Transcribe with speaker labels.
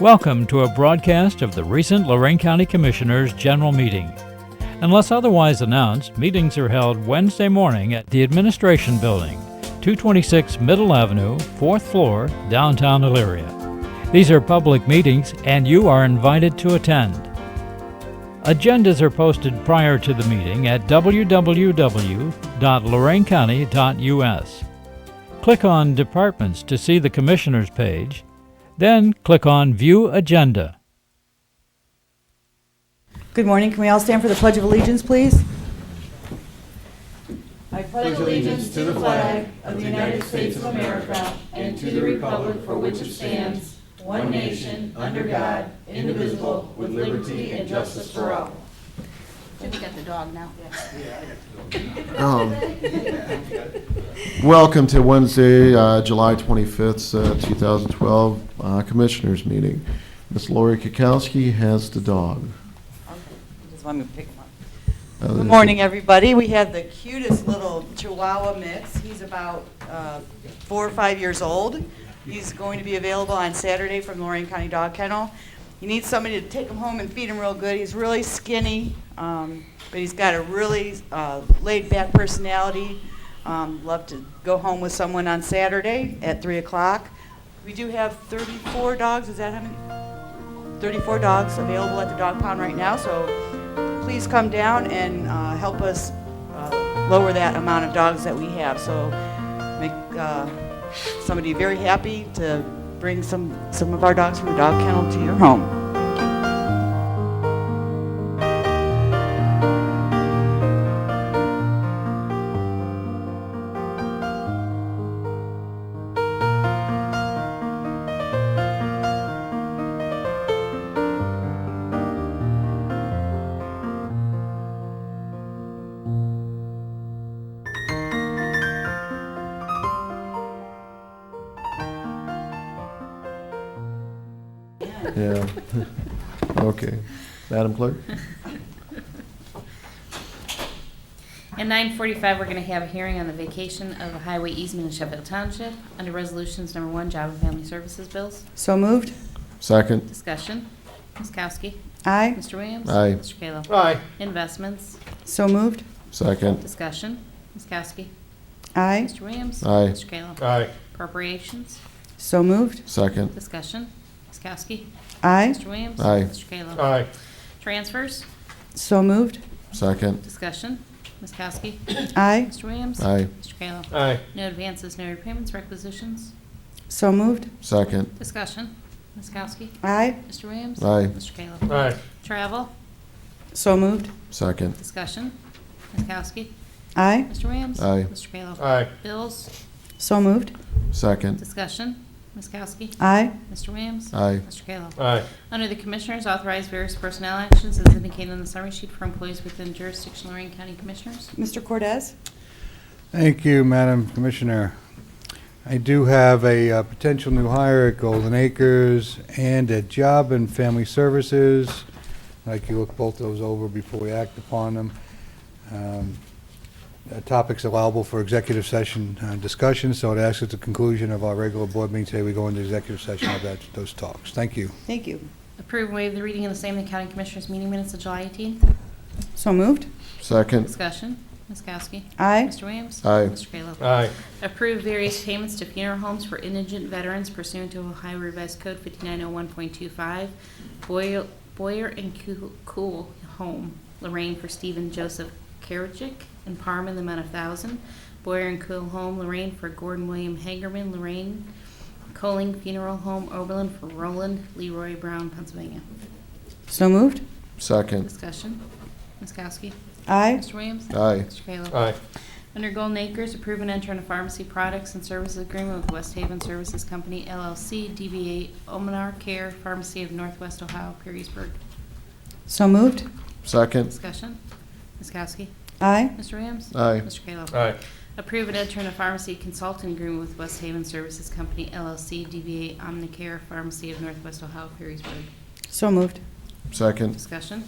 Speaker 1: Welcome to a broadcast of the recent Lorraine County Commissioners' General Meeting. Unless otherwise announced, meetings are held Wednesday morning at the Administration Building, 226 Middle Avenue, 4th floor, downtown Elyria. These are public meetings and you are invited to attend. Agendas are posted prior to the meeting at www.loraincounty.us. Click on Departments to see the Commissioners page, then click on View Agenda.
Speaker 2: Good morning. Can we all stand for the Pledge of Allegiance, please?
Speaker 3: Should we get the dog now?
Speaker 4: Welcome to Wednesday, uh, July 25th, uh, 2012 uh, Commissioners Meeting. Ms. Lori Kukowski has the dog.
Speaker 2: Just want me to pick him up.
Speaker 4: Uh,
Speaker 2: Good morning, everybody. We have the cutest little Chihuahua mix. He's about uh, four or five years old. He's going to be available on Saturday from Lorraine County Dog Kennel. You need somebody to take him home and feed him real good. He's really skinny, um, but he's got a really uh, laid-back personality. Um, Love to go home with someone on Saturday at 3 o'clock. We do have 34 dogs, is that how many? 34 dogs available at the dog pound right now, so please come down and uh, help us uh, lower that amount of dogs that we have. So make uh, somebody very happy to bring some, some of our dogs from the dog kennel to your home.
Speaker 4: Yeah. Okay. Madam Clerk?
Speaker 3: At nine forty-five, we're gonna have a hearing on the vacation of a highway easement in Sheffield Township under resolutions number one, job and family services bills.
Speaker 2: So moved?
Speaker 4: Second.
Speaker 3: Discussion. Ms. Kowski.
Speaker 2: Aye.
Speaker 3: Mr. Williams.
Speaker 4: Aye.
Speaker 3: Mr. Kayla.
Speaker 5: Aye.
Speaker 3: Investments.
Speaker 2: So moved?
Speaker 4: Second.
Speaker 3: Discussion. Ms. Kowski.
Speaker 2: Aye.
Speaker 3: Mr. Williams.
Speaker 4: Aye.
Speaker 3: Mr. Kayla.
Speaker 5: Aye.
Speaker 3: Appropriations.
Speaker 2: So moved?
Speaker 4: Second.
Speaker 3: Discussion. Ms. Kowski.
Speaker 2: Aye.
Speaker 3: Mr. Williams.
Speaker 4: Aye.
Speaker 3: Mr. Kayla.
Speaker 5: Aye.
Speaker 3: Transfers.
Speaker 2: So moved?
Speaker 4: Second.
Speaker 3: Discussion. Ms. Kowski.
Speaker 2: Aye.
Speaker 3: Mr. Williams.
Speaker 4: Aye.
Speaker 3: Mr. Kayla.
Speaker 5: Aye.
Speaker 3: No advances, no repayments, requisitions.
Speaker 2: So moved?
Speaker 4: Second.
Speaker 3: Discussion. Ms. Kowski.
Speaker 2: Aye.
Speaker 3: Mr. Williams?
Speaker 4: Aye.
Speaker 3: Mr. Caleb?
Speaker 5: Aye.
Speaker 3: Travel?
Speaker 2: So moved?
Speaker 4: Second.
Speaker 3: Discussion. Ms. Kowski?
Speaker 2: Aye.
Speaker 3: Mr. Williams?
Speaker 4: Aye.
Speaker 3: Mr. Caleb?
Speaker 5: Aye.
Speaker 3: Bills?
Speaker 2: So moved?
Speaker 4: Second.
Speaker 3: Discussion. Ms. Kowski?
Speaker 2: Aye.
Speaker 3: Mr. Williams?
Speaker 4: Aye.
Speaker 3: Mr. Caleb?
Speaker 5: Aye.
Speaker 3: Under the Commissioners, authorize various personnel actions as indicated on the summary sheet for employees within jurisdiction Lorraine County Commissioners.
Speaker 2: Mr. Cortez?
Speaker 6: Thank you, Madam Commissioner. I do have a uh, potential new hire at Golden Acres and at Job and Family Services. I'd like you to look both those over before we act upon them. Um, uh, Topics allowable for executive session uh, discussion, so it asks at the conclusion of our regular board meeting today, we go into executive session of that, those talks. Thank you.
Speaker 2: Thank you.
Speaker 3: Approve and waive the reading of the same in the County Commissioners meeting minutes of July 18th.
Speaker 2: So moved?
Speaker 4: Second.
Speaker 3: Discussion. Ms. Kowski?
Speaker 2: Aye.
Speaker 3: Mr. Williams?
Speaker 4: Aye.
Speaker 3: Mr. Caleb?
Speaker 5: Aye.
Speaker 3: Approve various payments to funeral homes for indigent veterans pursuant to Ohio Revised Code 5901.25, Boyer- Boyer and Coo- Cool Home, Lorraine for Stephen Joseph Karajic and Parma in the amount of 1000 Boyer and Cool Home, Lorraine for Gordon William Hagerman, Lorraine Coling Funeral Home, Oberlin for Roland Leroy Brown, Pennsylvania.
Speaker 2: So moved?
Speaker 4: Second.
Speaker 3: Discussion. Ms. Kowski.
Speaker 2: Aye.
Speaker 3: Mr. Williams.
Speaker 4: Aye.
Speaker 3: Mr. Kayla.
Speaker 5: Aye.
Speaker 3: Under Golden Acres, approve and enter in a pharmacy products and services agreement with West Haven Services Company LLC, DBA Omenar Care Pharmacy of Northwest Ohio, Perrysburg.
Speaker 2: So moved?
Speaker 4: Second.
Speaker 3: Discussion. Ms. Kowski.
Speaker 2: Aye.
Speaker 3: Mr. Williams.
Speaker 4: Aye.
Speaker 3: Mr. Kayla.
Speaker 5: Aye.
Speaker 3: Approve and enter in a pharmacy consulting agreement with West Haven Services Company LLC, DBA Omnicare Pharmacy of Northwest Ohio, Perrysburg.
Speaker 2: So moved.
Speaker 4: Second.
Speaker 3: Discussion.